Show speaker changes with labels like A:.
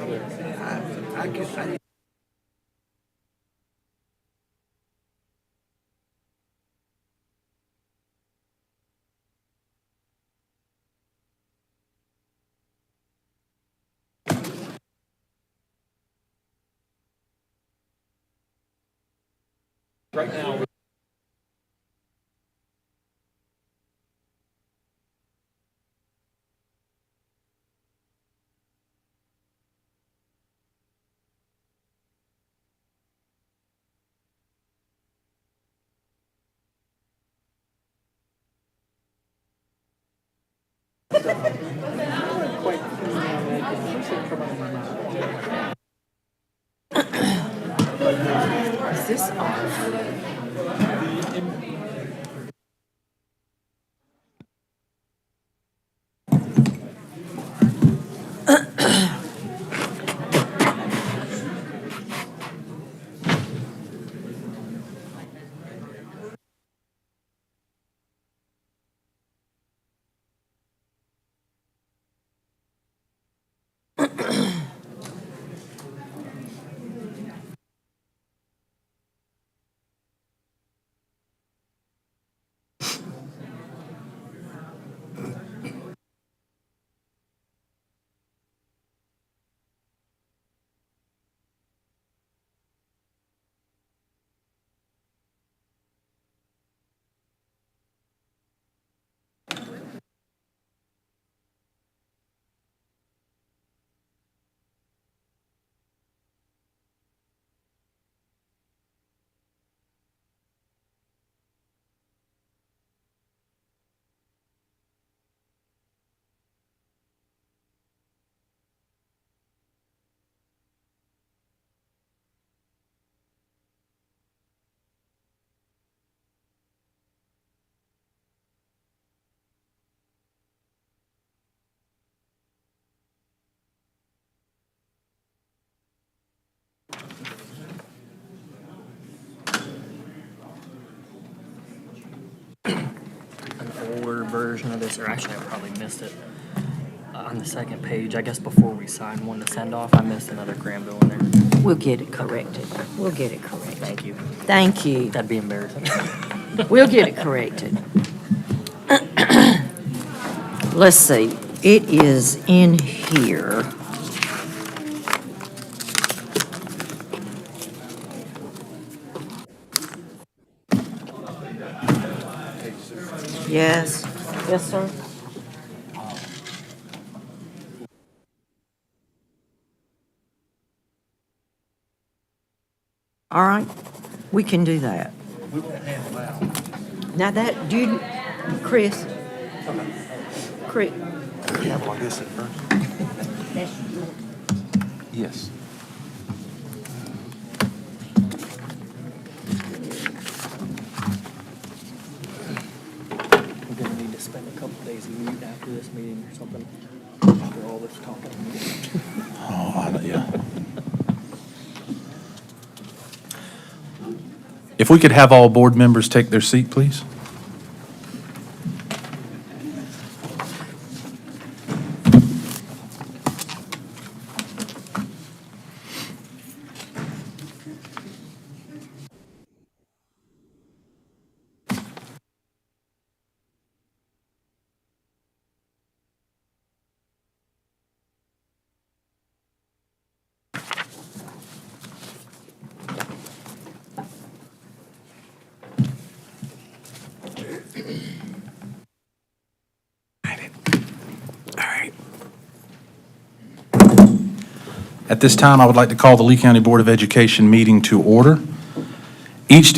A: I guess I.
B: Right now,
C: Is this off? An older version of this, or actually, I probably missed it. Uh, on the second page, I guess before we signed one to send off, I missed another grand bill in there.
D: We'll get it corrected. We'll get it corrected.
C: Thank you.
D: Thank you.
C: That'd be embarrassing.
D: We'll get it corrected. Let's see, it is in here. Yes? Yes, sir. All right, we can do that. Now that, dude, Chris, Chris,
E: Yeah, well, I guess at first. Yes.
C: We're gonna need to spend a couple days mute after this meeting or something, after all this talking.
E: Oh, I, yeah. If we could have all board members take their seat, please. At this time, I would like to call the Lee County Board of Education meeting to order. Each